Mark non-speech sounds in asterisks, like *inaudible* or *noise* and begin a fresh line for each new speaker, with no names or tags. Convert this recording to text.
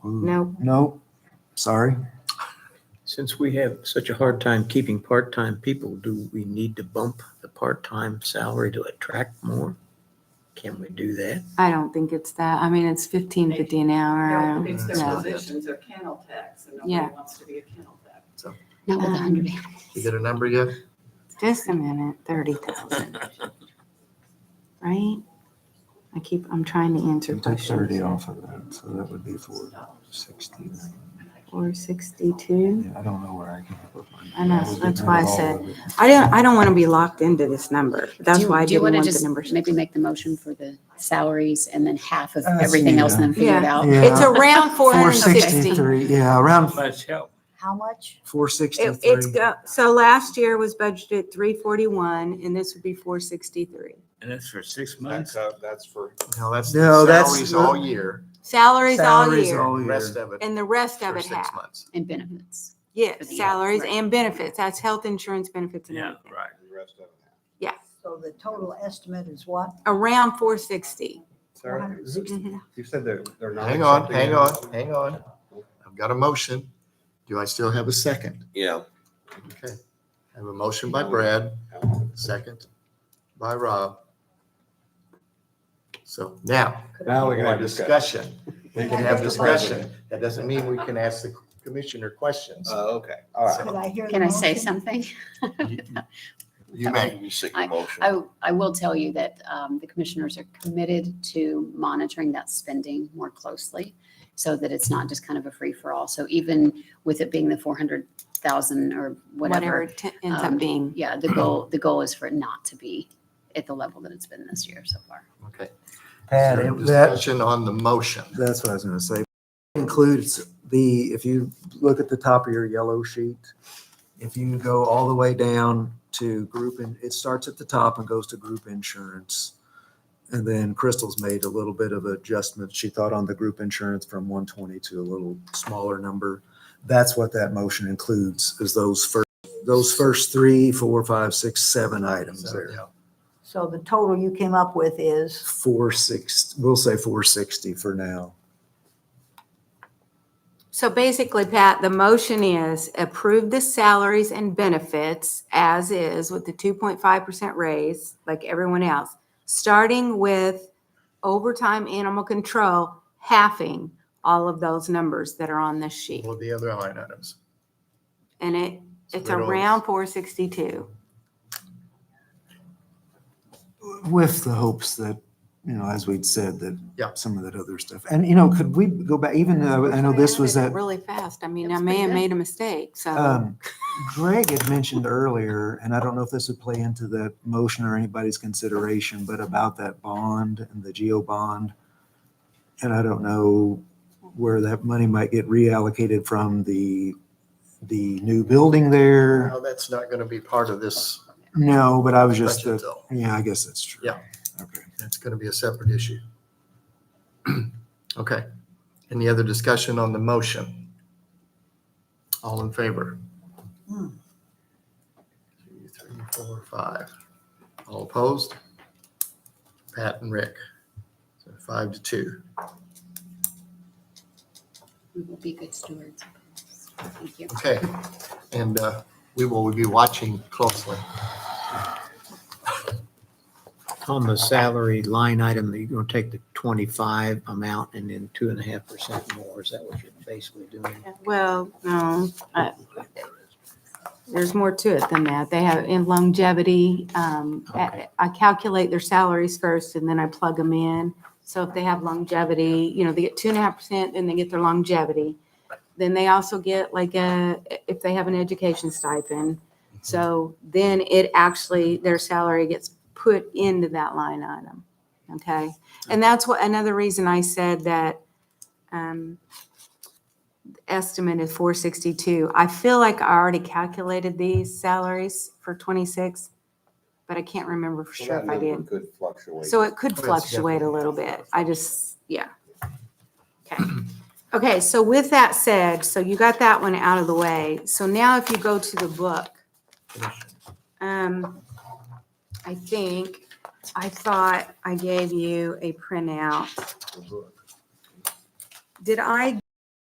No.
No, sorry.
Since we have such a hard time keeping part-time people, do we need to bump the part-time salary to attract more? Can we do that?
I don't think it's that. I mean, it's fifteen fifty an hour. I
No,
don't-
It's
no.
their positions, they're kennel techs, and
Yeah.
nobody wants to be a kennel tech.
Not with a hundred animals.
You get a number yet?
Um, Just a minute, thirty thousand. Right? I keep, I'm trying to answer
You take thirty
questions.
off of that, so that would be four sixty.
Four sixty-two.
Yeah, I don't know where I can put mine.
I know,
That would be
that's
not
why I
all
said-
of it.
I don't, I don't want to be locked into this number. That's
Do-
why I
do you
didn't
wanna
want the
just
numbers.
Maybe make the motion for the salaries and then half of
Uh, let's
everything
do
else and then figure it
Yeah.
out.
Yeah.
Oh, It's around
Four
four hundred and sixty.
sixty-three, yeah, around
Much help.
How much?
four
It- It's,
sixty-three.
go- so last year was budgeted three forty-one and this would be four sixty-three.
And that's for six
That's,
months?
uh, that's for, no, that's
No, that's
salaries
the-
all year,
Salaries all
Salaries
year
all
rest
year.
of it
and the rest of
for
it
six
half.
months.
And benefits. for
Yes,
the-
salaries
right.
and benefits. That's health insurance benefits and
Yeah,
everything.
right.
The rest of it half.
So the total estimate is what?
Around four sixty. Mm-hmm.
Sarah, is it- you said they're, they're not.
Hang on,
accepting
hang
it.
on, hang on. I've got a motion. Do I still have a second?
Yeah.
Okay. I have a motion by Brad, second by Rob. So now,
Now
we
we
can
can
have
have
discussion. We
They
can
can
have
Mr.
discussion.
President.
That doesn't mean we can ask the commissioner questions.
Oh, okay, all right.
Could I hear the
Can I say
motion?
something?
You may.
You sick of motion.
I, I will tell you that um, the commissioners are committed to monitoring that spending more closely so that it's not just kind of a free-for-all. So even with it being the 400,000 or
whatever
whatever,
it t- ends up
um,
being.
yeah, the goal, the goal is for it not to be at the level that it's been this year so far.
Okay.
Pat,
So
it- that,
Discussion on the motion.
that's what I was gonna say. Includes the, if you look at the top of your yellow sheet, if you go all the way down to group, and it starts at the top and goes to group insurance. And then Crystal's made a little bit of adjustment. She thought on the group insurance from one twenty to a little smaller number. That's what that motion includes, is those first, those first three, four, five, six, seven items
So,
there.
yeah.
So the total you came up with is,
Four six, we'll say four sixty for now.
So basically, Pat, the motion is approve the salaries and benefits as is with the two point five percent raise, like everyone else. Starting with overtime animal control, halving all of those numbers that are on this sheet.
All the other line items.
And it, it's
Spread all this.
around four sixty-two.
with the hopes that, you know, as we'd said, that
Yeah.
some of that other stuff. And, you know, could we go back, even though I know this was at,
Really fast. I mean,
That
I
was
may
pretty
have
good.
made a mistake, so.
um, Greg had mentioned earlier, and I don't know if this would play into the motion or anybody's consideration, but about that bond and the geo bond. And I don't know where that money might get reallocated from the, the new building there.
No, that's not going to be part of this
No, but I was just,
discussion
the-
though.
yeah, I guess that's true.
Yeah.
Okay.
That's going to be a separate issue. *clears throat* Okay. Any other discussion on the motion? All in favor?
Hmm.
Two, three, four, five. All opposed? Pat and Rick. So Five to two.
We will be good stewards. Thank you.
Okay. And uh, we will be watching closely.
On the salary line item, you're gonna take the twenty-five amount and then two and a half percent more. Is that what you're basically doing?
Well, no, I- there's more to it than that. They have in longevity. um, I
Okay.
I calculate their salaries first and then I plug them in. So if they have longevity, you know, they get two and a half percent, then they get their longevity. Then they also get like a, if they have an education stipend. So then it actually, their salary gets put into that line item. Okay? And that's what, another reason I said that um, estimate is four sixty-two. I feel like I already calculated these salaries for twenty-six, but I can't remember for
So
sure
that
if I
number
did.
Could fluctuate.
So it could
Yes,
fluctuate a
definitely.
little bit. I just, yeah. Okay. Okay, so with that said, so you got that one out of the way. So now if you go to the book, um, I think, I thought I gave you a printout. Did I